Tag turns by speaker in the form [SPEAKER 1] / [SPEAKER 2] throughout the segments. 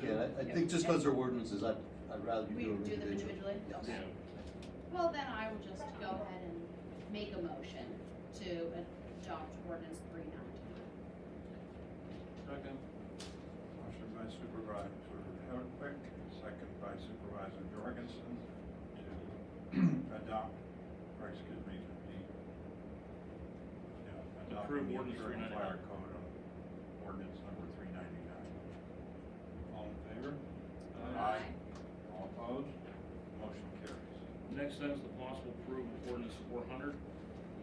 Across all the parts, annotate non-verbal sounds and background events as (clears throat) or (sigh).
[SPEAKER 1] can, I, I think just because they're ordinances, I'd, I'd rather
[SPEAKER 2] We
[SPEAKER 1] you
[SPEAKER 2] do
[SPEAKER 1] do them
[SPEAKER 2] them individually?
[SPEAKER 1] individually. Yes.
[SPEAKER 2] Okay. Well, then I will just go ahead and make a motion to adopt ordinance three ninety.
[SPEAKER 3] Second.
[SPEAKER 4] Motion by Supervisor Hardwick, second by Supervisor Jorgensen to adopt, or excuse me, to de, yeah, adopt the
[SPEAKER 3] Approve ordinance
[SPEAKER 4] interim
[SPEAKER 3] 399.
[SPEAKER 4] fire code of ordinance number three ninety-nine. All in favor?
[SPEAKER 3] Aye.
[SPEAKER 4] All opposed? Motion carries.
[SPEAKER 3] Next item is the possible approval of ordinance four hundred,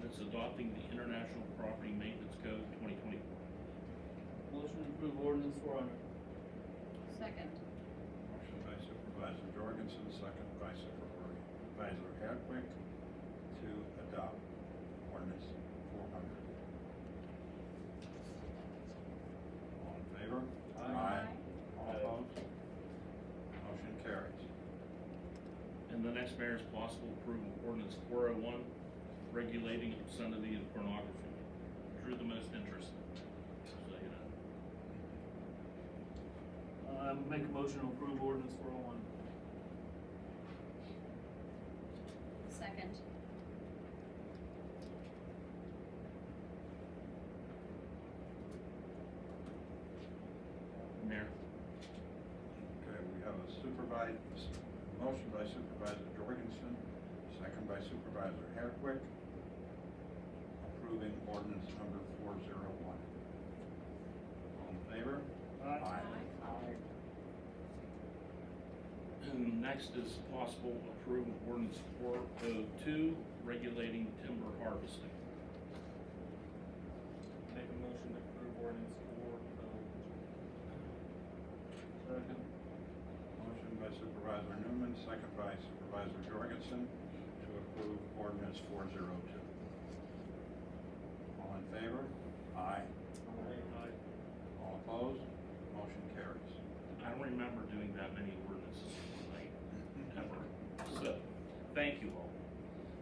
[SPEAKER 3] that's adopting the International Property Maintenance Code twenty twenty-four.
[SPEAKER 5] Motion to approve ordinance four hundred.
[SPEAKER 2] Second.
[SPEAKER 4] Motion by Supervisor Jorgensen, second by Supervisor Hardwick to adopt ordinance four hundred. All in favor? All opposed? Motion carries.
[SPEAKER 3] And the next matter is possible approval of ordinance four oh one, regulating obscenity and pornography. Drew the most interest. So, you know.
[SPEAKER 5] I would Uh, make a motion to approve ordinance four oh one.
[SPEAKER 2] Second.
[SPEAKER 3] Mayor,
[SPEAKER 4] Okay, we have a supervisor, motion by Supervisor Jorgensen, second by Supervisor Hardwick, approving ordinance number four zero one. All in favor?
[SPEAKER 5] Aye.
[SPEAKER 3] And next is possible approval of ordinance four oh two, regulating timber harvesting.
[SPEAKER 5] Make a motion to approve ordinance four oh. Second.
[SPEAKER 4] Motion by Supervisor Newman, second by Supervisor Jorgensen to approve ordinance four zero two. All in favor? Aye.
[SPEAKER 5] Aye.
[SPEAKER 4] All opposed? Motion carries.
[SPEAKER 3] I don't remember doing that many ordinances in one night, ever. So, thank you all.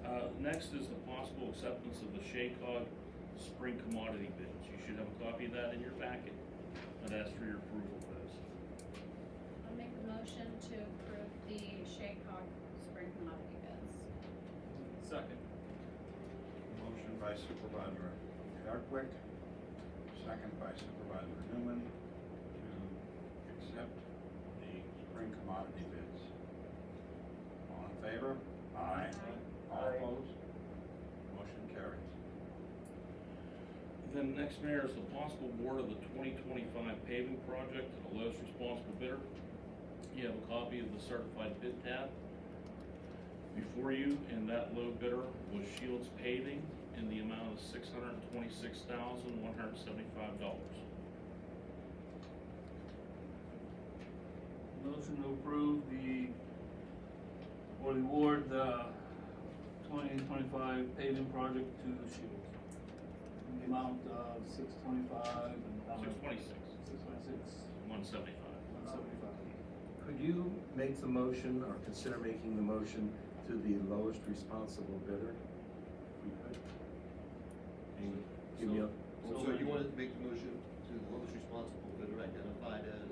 [SPEAKER 3] Uh, next is the possible acceptance of the Shaycog spring commodity bids. You should have a copy of that in your packet. I'd ask for your approval of those.
[SPEAKER 2] I'll make a motion to approve the Shaycog spring commodity bids.
[SPEAKER 5] Second.
[SPEAKER 4] Motion by Supervisor Hardwick, second by Supervisor Newman to accept the spring commodity bids. All in favor? Aye. All opposed? Motion carries.
[SPEAKER 3] Then next, Mayor, is the possible award of the twenty twenty-five paving project to the lowest responsible bidder. You have a copy of the certified bid tab before you, and that low bidder was Shields Paving in the amount of six hundred and twenty-six thousand, one hundred and seventy-five dollars.
[SPEAKER 5] Motion to approve the, or the award, the twenty twenty-five paving project to Shields. In the amount of six twenty-five and.
[SPEAKER 3] Six twenty-six,
[SPEAKER 5] Six twenty-six,
[SPEAKER 3] one seventy-five.
[SPEAKER 5] one seventy-five.
[SPEAKER 1] Could you make the motion or consider making the motion to the lowest responsible bidder? If you could. And give me a,
[SPEAKER 6] So you want to make the motion to the lowest responsible bidder identified as,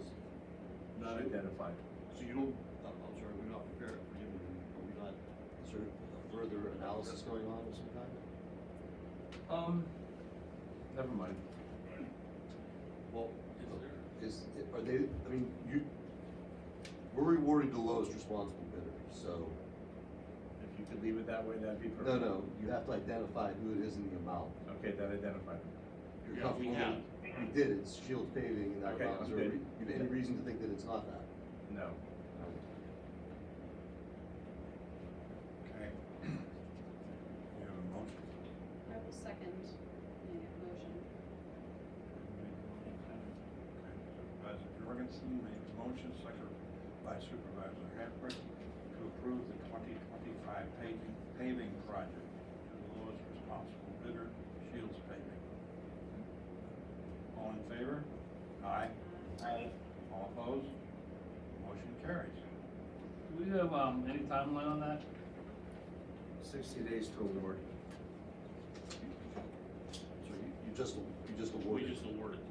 [SPEAKER 1] not identified.
[SPEAKER 6] so you don't, I'm, I'm sorry, we're not prepared for you, are we not, is there a further analysis going on of some kind?
[SPEAKER 1] Um, never mind.
[SPEAKER 6] Well, is, are they, I mean, you, we're rewarding the lowest responsible bidder, so,
[SPEAKER 1] If you could leave it that way, that'd be
[SPEAKER 6] no,
[SPEAKER 1] perfect.
[SPEAKER 6] no, you have to identify who it is in the amount.
[SPEAKER 1] Okay, that identified. it.
[SPEAKER 6] You're
[SPEAKER 3] Yeah, we
[SPEAKER 6] comfortable with-
[SPEAKER 3] have.
[SPEAKER 6] You did, it's Shield Paving and that
[SPEAKER 1] Okay,
[SPEAKER 6] amount, is
[SPEAKER 1] I'm
[SPEAKER 6] there, a re-
[SPEAKER 1] good.
[SPEAKER 6] you have any reason to think that it's not that?
[SPEAKER 1] No.
[SPEAKER 4] Okay. (clears throat) We have a motion.
[SPEAKER 2] I will second the motion.
[SPEAKER 4] Okay, Supervisor Jorgensen made the motion, second by Supervisor Hepburn, to approve the twenty twenty-five paving, paving project to the lowest responsible bidder, Shields Paving. All in favor? Aye. Aye. All opposed? Motion carries.
[SPEAKER 5] Do we have, um, any timeline on that?
[SPEAKER 1] Sixty days to award.
[SPEAKER 6] So you, you just, you just
[SPEAKER 3] We
[SPEAKER 6] awarded.
[SPEAKER 3] just awarded